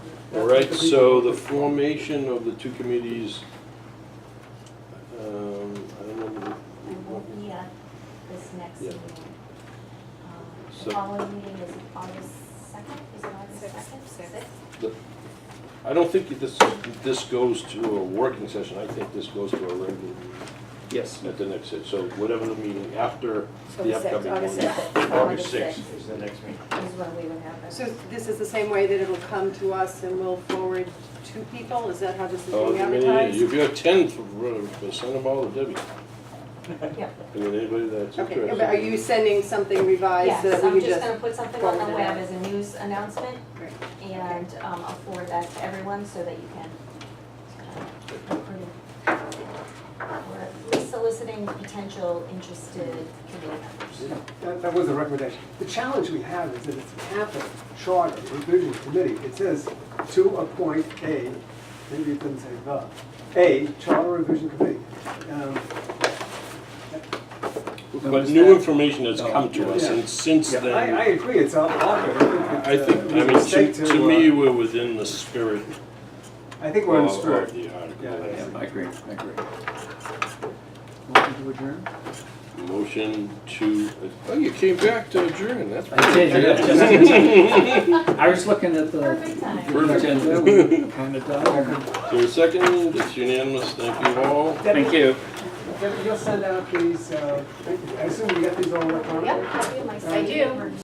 All right, so the formation of the two committees, um, I don't know, And we'll be at this next Yeah. meeting. Um, So- The following meeting is August second, is it August Sixth. second? Sixth. I don't think this, this goes to a working session, I think this goes to a regular meeting Yes. at the next, set. so whatever the meeting after So the sixth, upcoming one. August sixth. August August sixth. is the next meeting. Is when we would have So it. this is the same way that it'll come to us and we'll forward to people? Is that how this is Oh, being I mean, advertised? if you're ten, send them all to Debbie, Yeah. I mean, anybody that's Okay, interested. but are you sending something revised so Yes, that we I'm can just just? gonna put something on the forward it web out. as a news announcement Great. and um, I'll forward that to everyone so that you can. uh, approve. We're at least soliciting potential interested committee members. That, that was the recommendation. The challenge we have is that it's capital charter revision committee. It says to appoint a, maybe it doesn't say the, a charter revision committee. Um, But new information has come to us, Yeah. and since I, then. I agree, it's out awkward. I think, I mean, to, to me, we're within the spirit uh, I think of we're in of spirit. the article. Yeah, That's Yeah, I agree, I agree. Motion to adjourn? a Motion to, oh, you came back to adjourn, that's. I did, yeah. I was looking at the Perfect timing. the agenda, we kind of done. Is there a second, it's unanimous, thank you all. Thank you. Debbie, You'll send out these, uh, I assume you got these all electronically? Yep, I do my. I do.